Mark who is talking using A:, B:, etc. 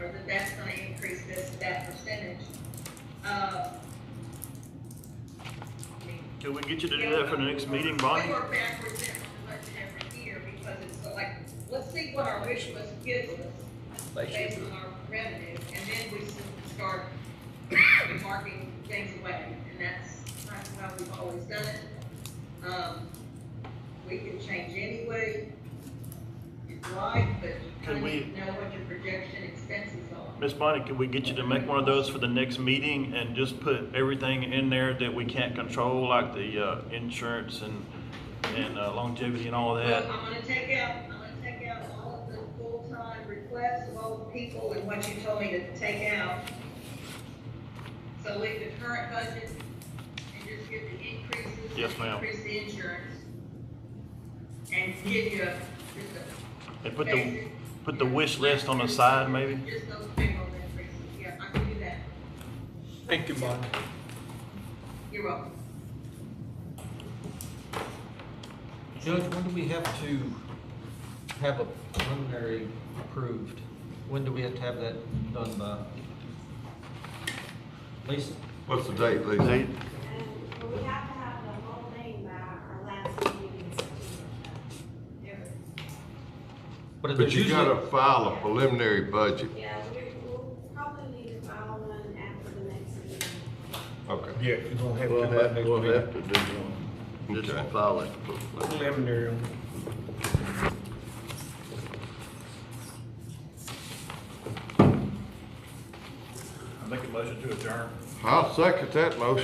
A: Um,
B: Can we get you to do that for the next meeting, Bonnie?
A: They were backwards every, every year because it's like, let's see what our wish list gives us based on our revenue, and then we s- start marking things away, and that's, that's how we've always done it. Um, we can change anyway, if you like, but you
B: Can
A: kind
B: we-
A: of know what your projection expenses are.
B: Miss Bonnie, could we get you to make one of those for the next meeting and just put everything in there that we can't control, like the, uh, insurance and, and uh, longevity and all
A: Well,
B: that?
A: I'm gonna take out, I'm gonna take out all of the full-time requests of all the people and what you told me to take out. So leave the current budget and just give the increases.
B: Yes, ma'am.
A: Increase the insurance. And give you a- just a.
B: And put the,
A: basic-
B: put the wish list on the side, maybe?
A: Just those big old increases, yeah, I can do that.
C: Thank you, Bonnie.
A: You're welcome.
C: Judge, when do we have to have a preliminary approved? When do we have to have that done by? Lisa?
D: What's the date, Lisa?
E: And we have to have the whole thing by our last meeting in September. Every-
C: But
D: But
C: there's
D: you gotta
C: usually-
D: file a preliminary budget.
E: Yeah, we- we'll probably need to file one after the next meeting.
D: Okay.
F: Yeah, you're gonna have
G: We'll
F: to by
G: have,
F: next
G: we'll
F: meeting.
G: have to do one.
D: Okay.
G: Just file it.
F: Preliminary. on
B: I make a motion to adjourn.
D: I'll second that motion.